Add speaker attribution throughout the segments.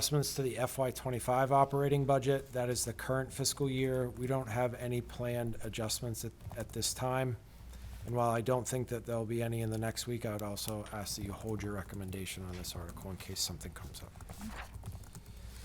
Speaker 1: Adjustments to the FY twenty-five operating budget, that is the current fiscal year. We don't have any planned adjustments at, at this time. And while I don't think that there'll be any in the next week, I would also ask that you hold your recommendation on this article in case something comes up.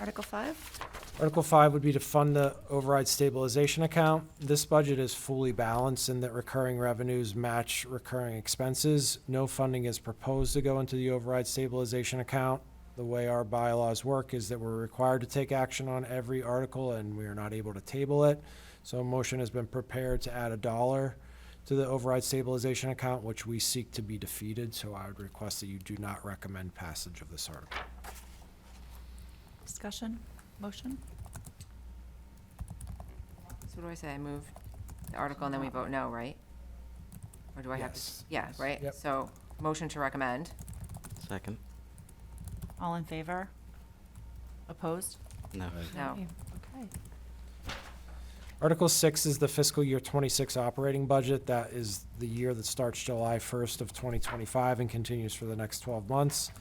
Speaker 2: Article five,
Speaker 1: Article five would be to fund the override stabilization account. This budget is fully balanced in that recurring revenues match recurring expenses. No funding is proposed to go into the override stabilization account. The way our bylaws work is that we're required to take action on every article and we are not able to table it. So a motion has been prepared to add a dollar to the override stabilization account, which we seek to be defeated. So I would request that you do not recommend passage of this article.
Speaker 2: discussion, motion?
Speaker 3: So what do I say? I move the article and then we vote no, right? Or do I have to? s- Yeah,
Speaker 1: Yes.
Speaker 3: right?
Speaker 1: Yep.
Speaker 3: So, motion to recommend.
Speaker 4: Second?
Speaker 2: All in favor? Opposed?
Speaker 4: No.
Speaker 3: No.
Speaker 2: Okay.
Speaker 1: Article six is the fiscal year twenty-six operating budget. That is the year that starts July first of twenty twenty-five and continues for the next twelve months.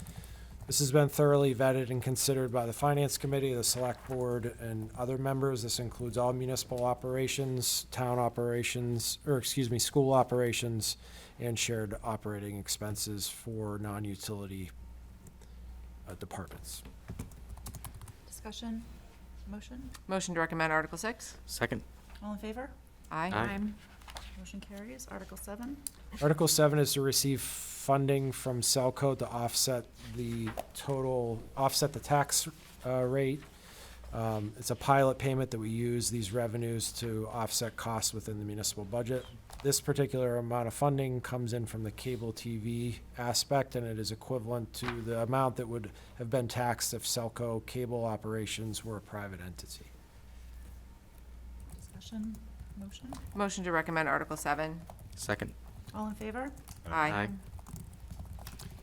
Speaker 1: This has been thoroughly vetted and considered by the Finance Committee, the Select Board, and other members. This includes all municipal operations, town operations, or excuse me, school operations, and shared operating expenses for non-utility uh, departments.
Speaker 2: Discussion, motion?
Speaker 3: Motion to recommend Article six?
Speaker 4: Second?
Speaker 2: All in favor?
Speaker 3: Aye.
Speaker 4: Aye.
Speaker 2: Motion carries. Article seven,
Speaker 1: Article seven is to receive funding from Selco to offset the total, offset the tax uh, rate. Um, It's a pilot payment that we use these revenues to offset costs within the municipal budget. This particular amount of funding comes in from the cable TV aspect, and it is equivalent to the amount that would have been taxed if Selco cable operations were a private entity.
Speaker 2: discussion, motion?
Speaker 3: Motion to recommend Article seven?
Speaker 4: Second?
Speaker 2: All in favor?
Speaker 3: Aye.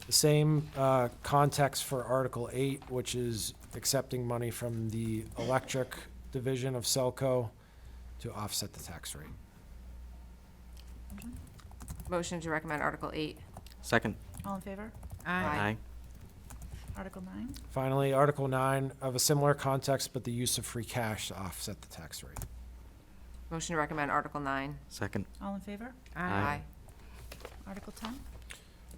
Speaker 1: The same uh, context for Article 8, which is accepting money from the electric division of Selco to offset the tax rate.
Speaker 2: Motion?
Speaker 3: Motion to recommend Article eight?
Speaker 4: Second?
Speaker 2: All in favor?
Speaker 3: Aye.
Speaker 2: Article nine,
Speaker 1: Finally, Article 9 of a similar context, but the use of free cash to offset the tax rate.
Speaker 3: Motion to recommend Article nine?
Speaker 4: Second?
Speaker 2: all in favor?
Speaker 4: Aye.
Speaker 2: Article ten,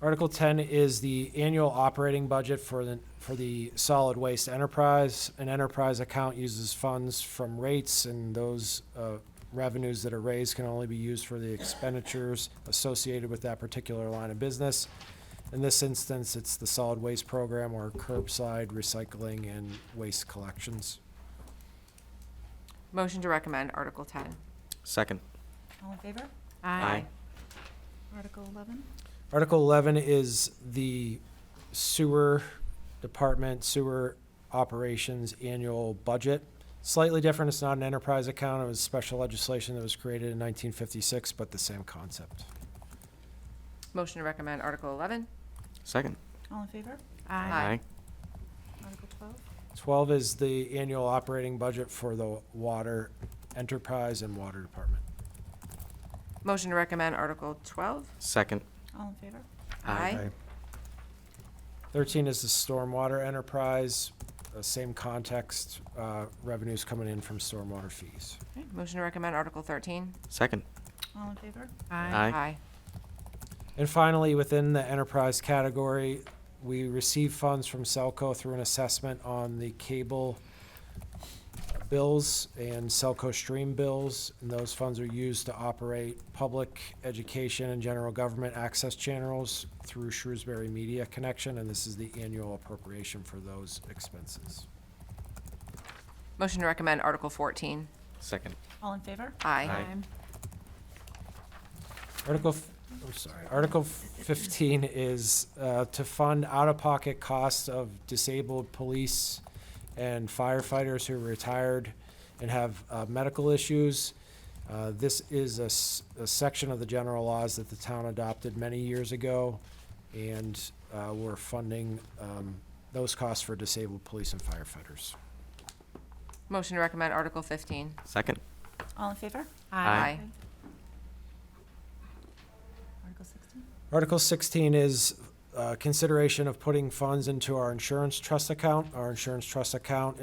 Speaker 1: Article 10 is the annual operating budget for the, for the solid waste enterprise. An enterprise account uses funds from rates, and those uh, revenues that are raised can only be used for the expenditures associated with that particular line of business. In this instance, it's the solid waste program or curbside recycling and waste collections.
Speaker 3: Motion to recommend Article ten?
Speaker 4: Second?
Speaker 2: all in favor? Article eleven,
Speaker 1: Article 11 is the sewer department, sewer operations annual budget. Slightly different, it's not an enterprise account, it was special legislation that was created in 1956, but the same concept.
Speaker 3: Motion to recommend Article eleven?
Speaker 4: Second?
Speaker 2: all in favor?
Speaker 3: Aye.
Speaker 2: Article twelve,
Speaker 1: 12 is the annual operating budget for the water enterprise and water department.
Speaker 3: Motion to recommend Article twelve?
Speaker 4: Second?
Speaker 2: all in favor?
Speaker 4: Aye.
Speaker 1: 13 is the stormwater enterprise, uh, same context, uh, revenues coming in from stormwater fees.
Speaker 3: Okay. Motion to recommend Article thirteen?
Speaker 4: Second?
Speaker 2: All in favor?
Speaker 4: Aye.
Speaker 3: Aye.
Speaker 1: And finally, within the enterprise category, we receive funds from Selco through an assessment on the cable bills and Selco stream bills. And those funds are used to operate public education and general government access channels through Shrewsbury Media Connection, and this is the annual appropriation for those expenses.
Speaker 3: Motion to recommend Article fourteen?
Speaker 4: Second?
Speaker 2: All in favor?
Speaker 3: Aye.
Speaker 4: Aye.
Speaker 1: Article, f- I'm sorry, Article fifteen is uh, to fund out-of-pocket costs of disabled police and firefighters who retired and have uh, medical issues. Uh, This is a s- a section of the general laws that the town adopted many years ago, and uh, we're funding um, those costs for disabled police and firefighters.
Speaker 3: Motion to recommend Article fifteen?
Speaker 4: Second?
Speaker 2: All in favor?
Speaker 4: Aye.
Speaker 1: Article
Speaker 2: Article sixteen,
Speaker 1: 16 is uh, consideration of putting funds into our insurance trust account. Our insurance trust account